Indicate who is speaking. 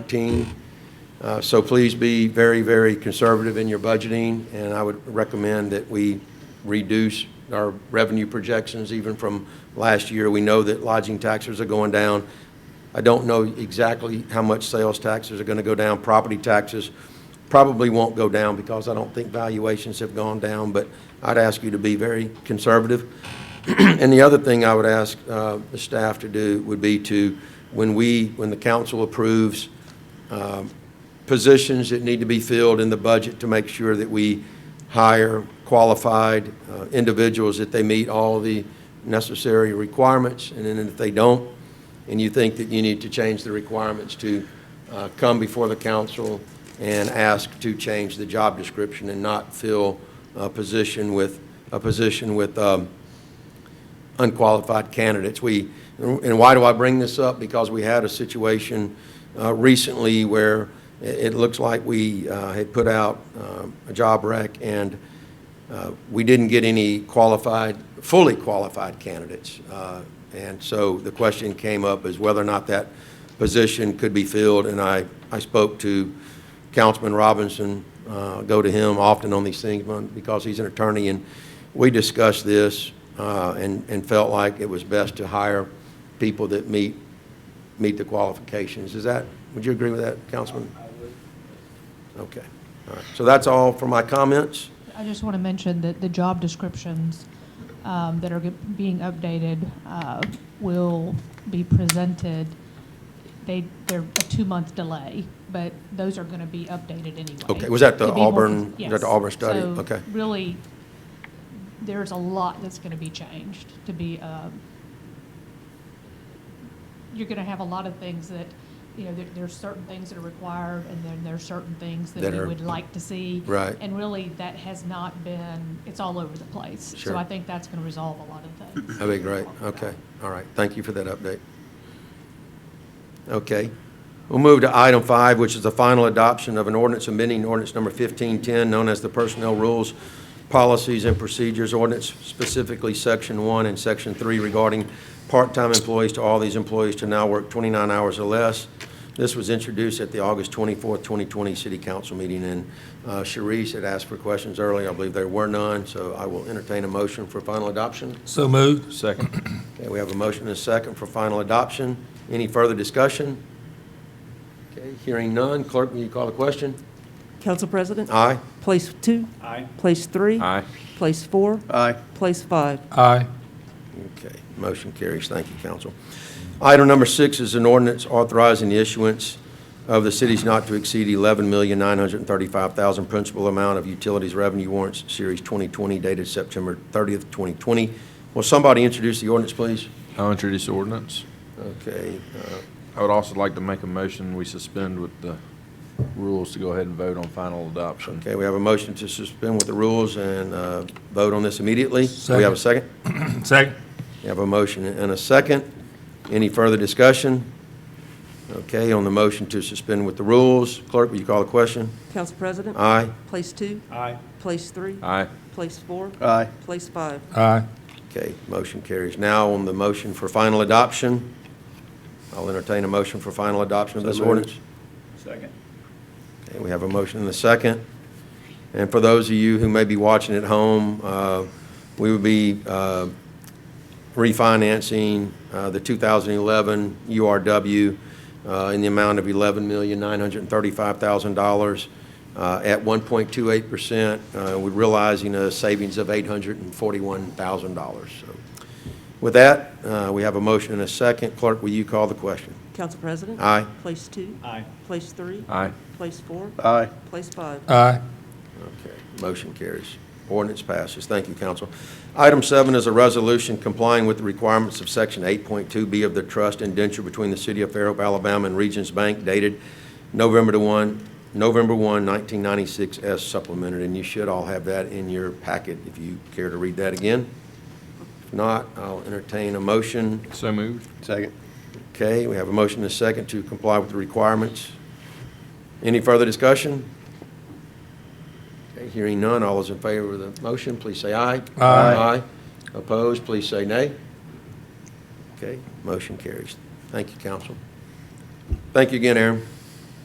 Speaker 1: 14. Uh, So please be very, very conservative in your budgeting, and I would recommend that we reduce our revenue projections even from last year. We know that lodging taxes are going down. I don't know exactly how much sales taxes are going to go down. Property taxes probably won't go down because I don't think valuations have gone down, but I'd ask you to be very conservative. And the other thing I would ask uh, the staff to do would be to, when we, when the council approves um, positions that need to be filled in the budget, to make sure that we hire qualified uh, individuals, that they meet all the necessary requirements. And then if they don't, and you think that you need to change the requirements to uh, come before the council and ask to change the job description and not fill a position with, a position with um, unqualified candidates. We, and why do I bring this up? Because we had a situation uh, recently where it, it looks like we uh, had put out um, a job rec and uh, we didn't get any qualified, fully qualified candidates. Uh, And so the question came up is whether or not that position could be filled. And I, I spoke to Councilman Robinson, uh, go to him often on these things but because he's an attorney. And we discussed this uh, and, and felt like it was best to hire people that meet, meet the qualifications. Is that, would you agree with that, Councilman? Okay. All right. So that's all for my comments.
Speaker 2: I just want to mention that the job descriptions um, that are g- being updated uh, will be presented. They, they're a two-month delay, but those are going to be updated anyway.
Speaker 1: Okay, was that the
Speaker 2: To be more
Speaker 1: Auburn- was
Speaker 2: cons-
Speaker 1: that the
Speaker 2: yes.
Speaker 1: Auburn study?
Speaker 2: So
Speaker 1: Okay.
Speaker 2: really, there's a lot that's going to be changed to be, um, you're going to have a lot of things that, you know, there- there's certain things that are required, and then there's certain things that
Speaker 1: That
Speaker 2: we
Speaker 1: are-
Speaker 2: would like to see.
Speaker 1: Right.
Speaker 2: And really, that has not been, it's all over the place.
Speaker 1: Sure.
Speaker 2: So I think that's going to resolve a lot of things.
Speaker 1: That'd be great. Okay, all right. Thank you for that update. Okay. We'll move to item five, which is the final adoption of an ordinance amending ordinance number 1510, known as the Personnel Rules, Policies, and Procedures Ordinance, specifically Section 1 and Section 3 regarding part-time employees to all these employees to now work 29 hours or less. This was introduced at the August 24th, 2020 City Council meeting, and uh, Sharice had asked for questions earlier. I believe there were none, so I will entertain a motion for final adoption.
Speaker 3: So moved. Second.
Speaker 1: Okay, we have a motion and a second for final adoption. Any further discussion? Okay, hearing none. Clerk, will you call the question?
Speaker 4: Council President?
Speaker 1: Aye?
Speaker 4: Place two? Aye. Place three?
Speaker 3: Aye.
Speaker 4: Place four?
Speaker 1: Aye.
Speaker 4: Place five?
Speaker 3: Aye.
Speaker 1: Okay, motion carries. Thank you, council. Item number six is an ordinance authorizing the issuance of the city's not to exceed eleven million nine hundred and thirty-five thousand principal amount of utilities revenue warrants, Series 2020, dated September 30th, 2020. Will somebody introduce the ordinance, please?
Speaker 5: I'll introduce the ordinance.
Speaker 1: Okay, uh,
Speaker 5: I would also like to make a motion, we suspend with the rules to go ahead and vote on final adoption.
Speaker 1: Okay, we have a motion to suspend with the rules and uh, vote on this immediately. Do we have a second?
Speaker 3: Second.
Speaker 1: We have a motion and a second. Any further discussion? Okay, on the motion to suspend with the rules, clerk, will you call the question?
Speaker 4: Council President?
Speaker 1: Aye?
Speaker 4: Place two?
Speaker 3: Aye.
Speaker 4: Place three?
Speaker 5: Aye.
Speaker 4: Place four?
Speaker 1: Aye.
Speaker 4: Place five?
Speaker 3: Aye.
Speaker 1: Okay, motion carries. Now on the motion for final adoption, I'll entertain a motion for final adoption of this ordinance.
Speaker 3: Second.
Speaker 1: Okay, we have a motion and a second. And for those of you who may be watching at home, uh, we would be uh, refinancing uh, the 2011 URW uh, in the amount of $11,935,000 uh, at 1.28%. uh, We're realizing a savings of $841,000. So With that, uh, we have a motion and a second. Clerk, will you call the question?
Speaker 4: Council President?
Speaker 1: Aye.
Speaker 4: Place two?
Speaker 3: Aye.
Speaker 4: Place three?
Speaker 5: Aye.
Speaker 4: Place four?
Speaker 1: Aye.
Speaker 4: Place five?
Speaker 3: Aye.
Speaker 1: Okay, motion carries. Ordinance passes. Thank you, council. Item seven is a resolution complying with the requirements of Section 8.2B of the trust indenture between the City of Fairhope, Alabama and Regions Bank dated November to 1, November 1, 1996, as supplemented, and you should all have that in your packet if you care to read that again. If not, I'll entertain a motion.
Speaker 5: So moved.
Speaker 1: Second. Okay, we have a motion and a second to comply with the requirements. Any further discussion? Okay, Hearing none, all those in favor of the motion, please say aye.
Speaker 3: Aye.
Speaker 1: Opposed, please say nay. Okay, motion carries. Thank you, council. Thank you again, Aaron.